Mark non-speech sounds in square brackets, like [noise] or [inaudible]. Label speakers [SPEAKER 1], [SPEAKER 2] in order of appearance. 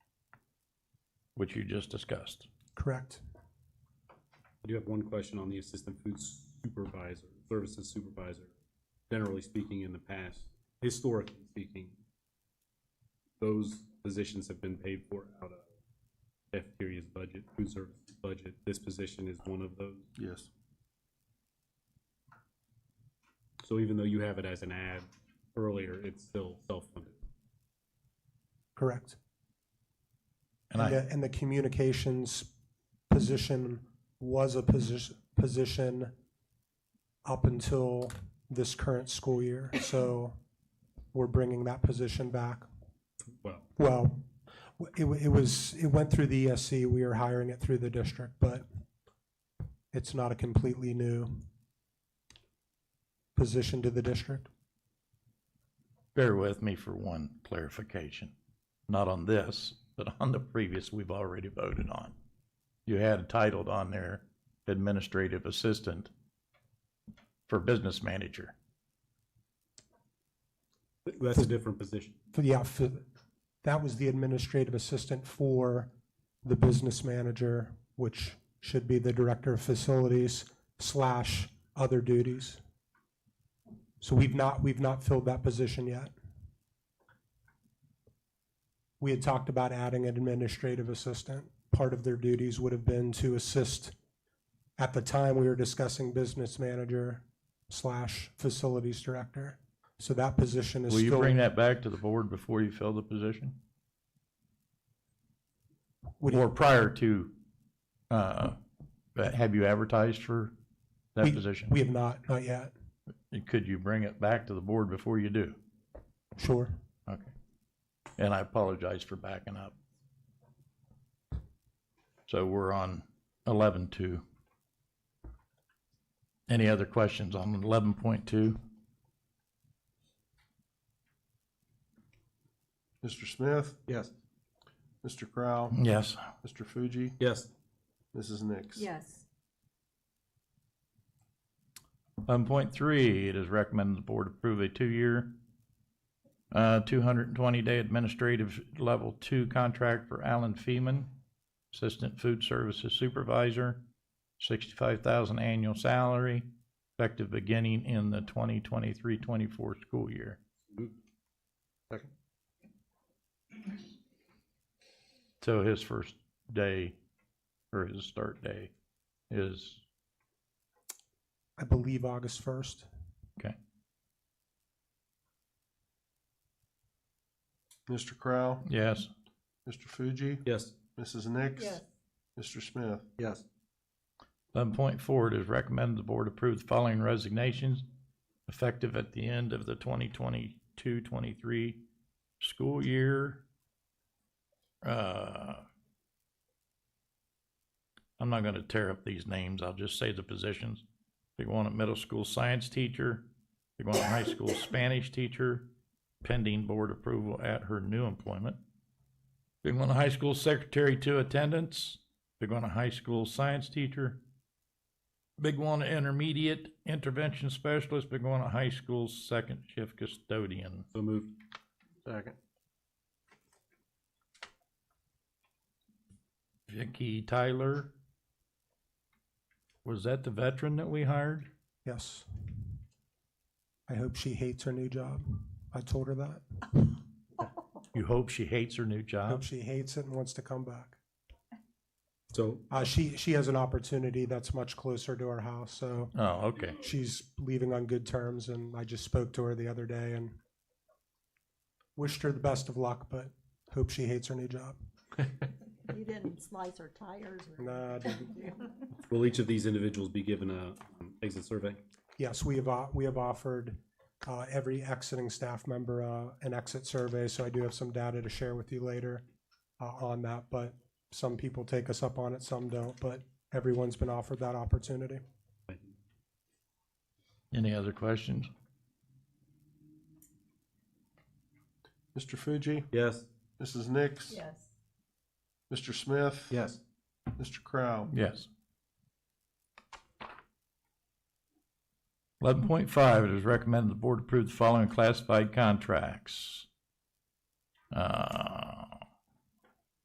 [SPEAKER 1] which you just discussed.
[SPEAKER 2] Correct.
[SPEAKER 3] I do have one question on the assistant food supervisor, services supervisor. Generally speaking, in the past, historically speaking, those positions have been paid for out of cafeteria's budget, food services budget. This position is one of those.
[SPEAKER 4] Yes.
[SPEAKER 3] So even though you have it as an ad earlier, it's still self-funded.
[SPEAKER 2] Correct.
[SPEAKER 1] And
[SPEAKER 2] And
[SPEAKER 1] I,
[SPEAKER 2] the, and the communications position was a position, position up until this current school year. So we're bringing that position back.
[SPEAKER 3] Well,
[SPEAKER 2] Well, w- it, wa- it was, it went through the ESC. We are hiring it through the district, but it's not a completely new position to the district.
[SPEAKER 1] bear with me for one clarification, not on this, but on the previous we've already voted on. You had titled on there administrative assistant for business manager.
[SPEAKER 3] th- that's a different position.
[SPEAKER 2] For- Yeah, for- that was the administrative assistant for the business manager, which should be the director of facilities slash other duties. So we've not, we've not filled that position yet. We had talked about adding an administrative assistant. Part of their duties would have been to assist, at the time, we were discussing business manager slash facilities director. So that position is
[SPEAKER 1] Will
[SPEAKER 2] still.
[SPEAKER 1] you bring that back to the board before you fill the position?
[SPEAKER 2] What do you-
[SPEAKER 1] Or prior to, uh, but have you advertised for that
[SPEAKER 2] We-
[SPEAKER 1] position?
[SPEAKER 2] We have not, not yet.
[SPEAKER 1] Could you bring it back to the board before you do?
[SPEAKER 2] Sure.
[SPEAKER 1] Okay. And I apologize for backing up. So we're on eleven two. Any other questions on eleven point two?
[SPEAKER 4] Mr. Smith? Yes. Mr. Crowe?
[SPEAKER 1] Yes.
[SPEAKER 4] Mr. Fuji?
[SPEAKER 3] Yes.
[SPEAKER 4] Mrs. Nix?
[SPEAKER 5] Yes.
[SPEAKER 1] Um, point three, it is recommended the board approve a two-year, uh, two hundred and twenty-day administrative level two contract for Alan Feeman, Assistant Food Services Supervisor, sixty-five thousand annual salary, effective beginning in the 2023-24 school year.
[SPEAKER 4] Second.
[SPEAKER 1] So his first day, or his start day is,
[SPEAKER 2] I believe August 1st.
[SPEAKER 4] Mr. Crowe?
[SPEAKER 1] yes,
[SPEAKER 4] Mr. Fuji?
[SPEAKER 3] Yes.
[SPEAKER 4] Mrs. Nix?
[SPEAKER 5] Yes.
[SPEAKER 4] Mr. Smith?
[SPEAKER 3] Yes.
[SPEAKER 1] Eleven point four, it is recommended the board approve the following resignations effective at the end of the 2022-23 school year. Uh, I'm not gonna tear up these names, I'll just say the positions. Big one, a middle school science teacher, big one, a high school Spanish teacher, pending board approval at her new employment. Big one, a high school secretary to attendance. Big one, a high school science teacher. Big one, intermediate intervention specialist. Big one, a high school second shift custodian.
[SPEAKER 3] So moved.
[SPEAKER 4] Second.
[SPEAKER 1] Vicky Tyler. Was that the veteran that we hired?
[SPEAKER 2] Yes. I hope she hates her new job. I told her that.
[SPEAKER 1] You hope she hates her new
[SPEAKER 2] I hope
[SPEAKER 1] job?
[SPEAKER 2] she hates it and wants to come back.
[SPEAKER 3] So
[SPEAKER 2] Uh, she, she has an opportunity that's much closer to our house, so
[SPEAKER 1] Oh, okay.
[SPEAKER 2] she's leaving on good terms, and I just spoke to her the other day and wished her the best of luck, but hope she hates her new job.
[SPEAKER 5] You didn't slice her tires or?
[SPEAKER 2] Nah, I didn't.
[SPEAKER 3] will each of these individuals be given a um, exit survey?
[SPEAKER 2] Yes, we have, o- we have offered uh, every exiting staff member uh, an exit survey, so I do have some data to share with you later uh, on that, but some people take us up on it, some don't, but everyone's been offered that opportunity.
[SPEAKER 1] Any other questions?
[SPEAKER 4] Mr. Fuji?
[SPEAKER 3] Yes.
[SPEAKER 4] Mrs. Nix?
[SPEAKER 5] [laughs] Yes.
[SPEAKER 4] Mr. Smith?
[SPEAKER 3] Yes.
[SPEAKER 4] Mr. Crowe?
[SPEAKER 1] Yes. Eleven point five, it is recommended the board approve the following classified contracts. Uh,